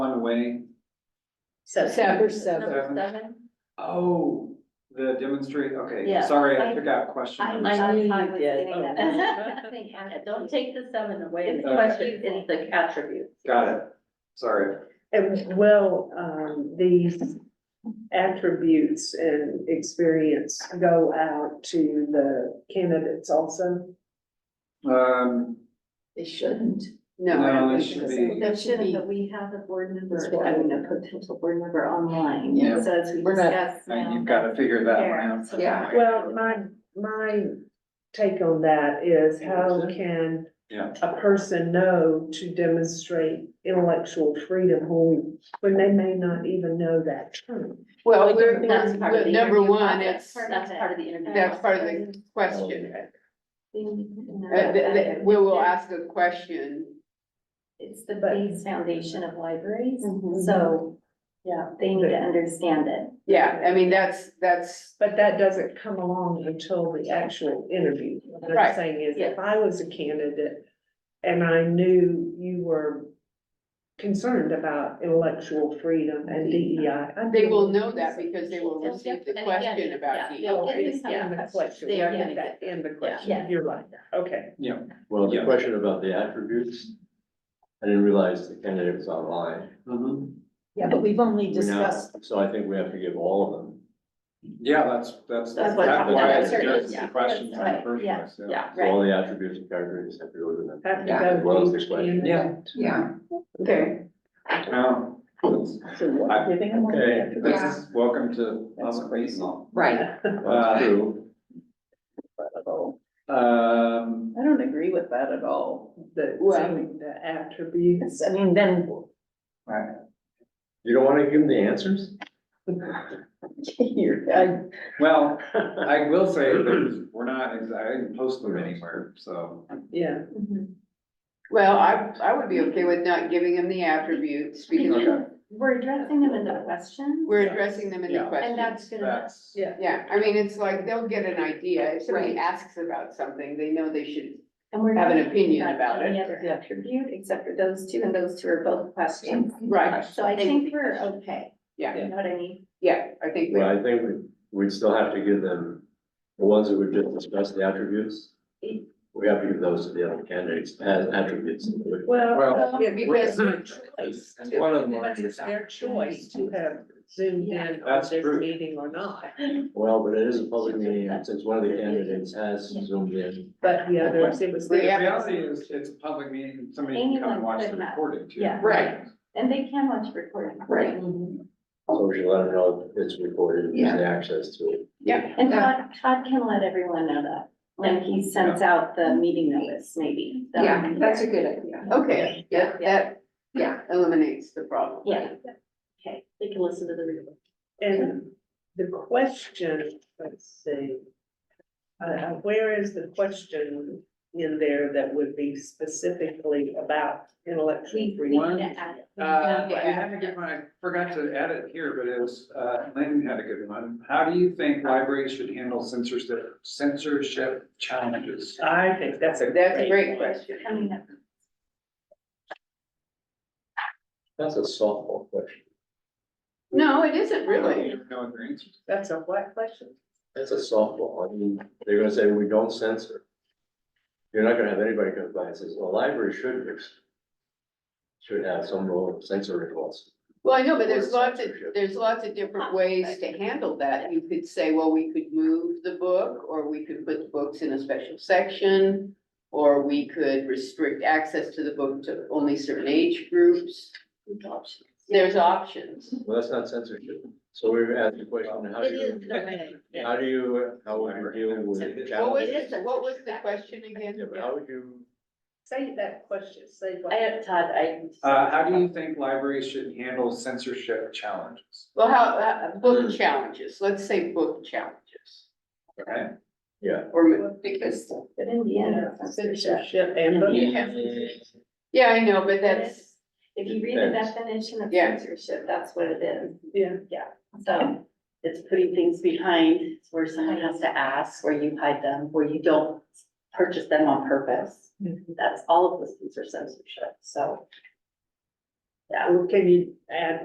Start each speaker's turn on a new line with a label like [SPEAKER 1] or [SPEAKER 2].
[SPEAKER 1] way.
[SPEAKER 2] So.
[SPEAKER 3] Number seven.
[SPEAKER 1] Seven. Oh, the demonstrate, okay,
[SPEAKER 2] Yeah,
[SPEAKER 1] sorry, I
[SPEAKER 2] I-
[SPEAKER 1] took out question
[SPEAKER 2] I, I,
[SPEAKER 1] number
[SPEAKER 3] like-
[SPEAKER 1] seven.
[SPEAKER 2] I was
[SPEAKER 3] Yeah.
[SPEAKER 2] getting that.
[SPEAKER 3] Oh.
[SPEAKER 2] Nothing added. Don't take the seven away. The
[SPEAKER 1] Okay.
[SPEAKER 2] question is the attributes.
[SPEAKER 1] Got it, sorry.
[SPEAKER 4] And well, um, these attributes and experience go out to the candidates also.
[SPEAKER 1] Um,
[SPEAKER 2] They shouldn't.
[SPEAKER 3] No. I
[SPEAKER 1] No,
[SPEAKER 3] don't
[SPEAKER 1] it
[SPEAKER 3] think
[SPEAKER 1] should
[SPEAKER 3] so.
[SPEAKER 1] be-
[SPEAKER 2] They shouldn't, but we have a board member,
[SPEAKER 4] That's
[SPEAKER 2] I mean, a potential board member online.
[SPEAKER 1] Yeah.
[SPEAKER 2] So as we
[SPEAKER 3] We're not-
[SPEAKER 2] discuss
[SPEAKER 1] now
[SPEAKER 2] now.
[SPEAKER 1] you've gotta figure that one out.
[SPEAKER 2] So-
[SPEAKER 3] Yeah.
[SPEAKER 4] Well, my, my take on that is how can
[SPEAKER 1] Yeah.
[SPEAKER 4] a person know to demonstrate intellectual freedom when, when they may not even know that term?
[SPEAKER 3] Well,
[SPEAKER 2] We're-
[SPEAKER 3] we're,
[SPEAKER 2] That's part of
[SPEAKER 3] we're-
[SPEAKER 2] the
[SPEAKER 3] number
[SPEAKER 2] interview
[SPEAKER 3] one,
[SPEAKER 2] process.
[SPEAKER 3] it's,
[SPEAKER 2] That's part of the interview.
[SPEAKER 3] that's part of
[SPEAKER 2] process.
[SPEAKER 3] the question. Uh,
[SPEAKER 2] Uh,
[SPEAKER 3] th- th- we will ask the question.
[SPEAKER 2] It's the
[SPEAKER 4] But-
[SPEAKER 2] base foundation of libraries, so, yeah, they need to understand it.
[SPEAKER 3] Yeah, I mean, that's, that's,
[SPEAKER 4] But that doesn't come along until the actual interview. What
[SPEAKER 3] Right.
[SPEAKER 4] I'm saying is,
[SPEAKER 2] Yes.
[SPEAKER 4] if I was a candidate and I knew you were concerned about intellectual freedom and DEI. I'd
[SPEAKER 3] they
[SPEAKER 4] be-
[SPEAKER 3] will know that because they will receive the
[SPEAKER 2] And again,
[SPEAKER 3] question about
[SPEAKER 2] yeah.
[SPEAKER 3] you.
[SPEAKER 4] Oh, it's
[SPEAKER 2] Yeah.
[SPEAKER 4] in the question,
[SPEAKER 2] They are gonna
[SPEAKER 4] Get that in the
[SPEAKER 2] Yeah.
[SPEAKER 4] question, you're right, okay.
[SPEAKER 5] Well, the
[SPEAKER 1] Yeah.
[SPEAKER 5] question about the attributes, I didn't realize the candidate was online.
[SPEAKER 1] Mhm.
[SPEAKER 6] Yeah, but we've only
[SPEAKER 5] We now-
[SPEAKER 6] discussed,
[SPEAKER 5] So I think we have to give all of them.
[SPEAKER 1] Yeah, that's, that's, that's
[SPEAKER 2] That's
[SPEAKER 1] why
[SPEAKER 2] what-
[SPEAKER 1] I
[SPEAKER 2] that's
[SPEAKER 1] suggested
[SPEAKER 2] certain-
[SPEAKER 1] the questions in the
[SPEAKER 2] right,
[SPEAKER 1] first
[SPEAKER 2] yeah,
[SPEAKER 1] place, yeah.
[SPEAKER 2] Yeah,
[SPEAKER 5] So
[SPEAKER 2] right,
[SPEAKER 5] all the attributes and characteristics have to go to them.
[SPEAKER 4] Have to
[SPEAKER 3] Yeah,
[SPEAKER 4] go
[SPEAKER 5] as well as
[SPEAKER 4] to
[SPEAKER 5] the question.
[SPEAKER 4] candidate.
[SPEAKER 1] Yeah.
[SPEAKER 3] Yeah.
[SPEAKER 2] okay,
[SPEAKER 1] Oh, that's- I- Okay, this is, welcome to Las Vegas.
[SPEAKER 3] Right.
[SPEAKER 1] Uh,
[SPEAKER 5] That's true.
[SPEAKER 1] Um,
[SPEAKER 6] I don't agree with that at all.
[SPEAKER 4] The,
[SPEAKER 3] Well-
[SPEAKER 4] saying the attributes.
[SPEAKER 6] I mean, then,
[SPEAKER 5] You don't want to give them the answers?
[SPEAKER 6] you're, I,
[SPEAKER 1] well, I will say that we're not, ex- I didn't post them anywhere, so.
[SPEAKER 4] Yeah,
[SPEAKER 2] Mhm.
[SPEAKER 3] Well, I, I would be okay with not giving them the attributes because
[SPEAKER 1] Okay.
[SPEAKER 2] we're addressing them in the question.
[SPEAKER 3] we're addressing them in the
[SPEAKER 1] Yeah.
[SPEAKER 2] And that's
[SPEAKER 3] question.
[SPEAKER 2] gonna,
[SPEAKER 1] That's,
[SPEAKER 4] Yeah.
[SPEAKER 3] Yeah, I mean, it's like, they'll get an idea. If somebody
[SPEAKER 2] Right.
[SPEAKER 3] asks about something, they know they should,
[SPEAKER 2] and we're.
[SPEAKER 3] Have an
[SPEAKER 2] not talking
[SPEAKER 3] opinion about
[SPEAKER 2] Any
[SPEAKER 3] it.
[SPEAKER 2] other
[SPEAKER 6] Yeah.
[SPEAKER 2] attribute except for those two, and those two are both questions.
[SPEAKER 3] right,
[SPEAKER 2] So I think we're okay,
[SPEAKER 3] yeah,
[SPEAKER 2] you know what I mean?
[SPEAKER 3] yeah, I think, we-
[SPEAKER 5] Well, I think we, we'd still have to give them, the ones that we just discussed, the attributes. We have to give those to the other candidates as attributes.
[SPEAKER 4] well,
[SPEAKER 2] um,
[SPEAKER 1] Well,
[SPEAKER 4] it
[SPEAKER 3] because-
[SPEAKER 4] was their choice.
[SPEAKER 1] And one of them-
[SPEAKER 4] It was their choice to have zoomed in on
[SPEAKER 1] That's
[SPEAKER 4] this
[SPEAKER 1] true.
[SPEAKER 4] meeting or not.
[SPEAKER 5] Well, but it is a public meeting, and since one of the candidates has zoomed in.
[SPEAKER 4] But the others, it was
[SPEAKER 1] The
[SPEAKER 3] Yeah.
[SPEAKER 4] their.
[SPEAKER 1] reality is, it's a public meeting, somebody can come and
[SPEAKER 2] Anyone
[SPEAKER 1] watch
[SPEAKER 2] could
[SPEAKER 1] the
[SPEAKER 2] have.
[SPEAKER 1] recording too.
[SPEAKER 2] Yeah.
[SPEAKER 3] right,
[SPEAKER 2] And they can watch recording.
[SPEAKER 3] Right.
[SPEAKER 5] So we should let them know it's recorded, and the access to it.
[SPEAKER 3] yeah.
[SPEAKER 2] And Todd, Todd can let everyone know that, when he sends out the meeting notice, maybe. that
[SPEAKER 7] Yeah,
[SPEAKER 2] would be
[SPEAKER 7] that's a
[SPEAKER 2] there.
[SPEAKER 7] good idea.
[SPEAKER 3] Okay, yeah, that, yeah, eliminates the problem.
[SPEAKER 2] Yeah, okay, they can listen to the real.
[SPEAKER 4] And the question, let's see. Uh, where is the question in there that would be specifically about intellectual
[SPEAKER 2] We we
[SPEAKER 4] freedom?
[SPEAKER 2] need
[SPEAKER 1] One,
[SPEAKER 2] to add it.
[SPEAKER 1] Uh, I had a good one, I forgot to add it here, but it was, uh, Lynn had a good one. How do you think libraries should handle censorship, censorship challenges?
[SPEAKER 4] I think that's a
[SPEAKER 3] That's a
[SPEAKER 4] great,
[SPEAKER 3] great question.
[SPEAKER 2] Coming up.
[SPEAKER 5] That's a softball question.
[SPEAKER 3] No, it isn't
[SPEAKER 1] I don't
[SPEAKER 3] really.
[SPEAKER 1] even know what their answer is.
[SPEAKER 4] that's a what question?
[SPEAKER 5] That's a softball. I mean, they're gonna say, we don't censor. You're not gonna have anybody come by and says, well, library should, should have some role of censoring laws.
[SPEAKER 3] Well, I know, but there's
[SPEAKER 5] Or
[SPEAKER 3] lots of,
[SPEAKER 5] censorship.
[SPEAKER 3] there's lots of different ways to handle that. You could say, well, we could move the book, or we could put the books in a special section. Or we could restrict access to the book to only certain age groups. There's options.
[SPEAKER 5] Well, that's not censorship. So we're asking the question, how do you, how do you, how would you deal with
[SPEAKER 3] What was,
[SPEAKER 5] challenges?
[SPEAKER 3] it- what was the question again?
[SPEAKER 5] Yeah, but how would you?
[SPEAKER 4] Say that question, say
[SPEAKER 2] I
[SPEAKER 4] what?
[SPEAKER 2] have Todd, I.
[SPEAKER 1] Uh, how do you think libraries should handle censorship challenges?
[SPEAKER 3] Well, how, how- book challenges, let's say book challenges,
[SPEAKER 1] Okay,
[SPEAKER 5] Yeah.
[SPEAKER 3] or,
[SPEAKER 2] Because. But in the end. it's censorship.
[SPEAKER 4] Censorship and.
[SPEAKER 3] Yeah. yeah, I know, but that's.
[SPEAKER 2] If you read the
[SPEAKER 5] Depends.
[SPEAKER 2] definition of
[SPEAKER 3] Yeah.
[SPEAKER 2] censorship, that's what it is.
[SPEAKER 4] Yeah.
[SPEAKER 7] So it's putting things behind where someone has to ask, where you hide them, where you don't purchase
[SPEAKER 2] Mm-hmm.
[SPEAKER 7] them on purpose. That's all of those things are censorship, so.
[SPEAKER 4] Well, Can you uh, add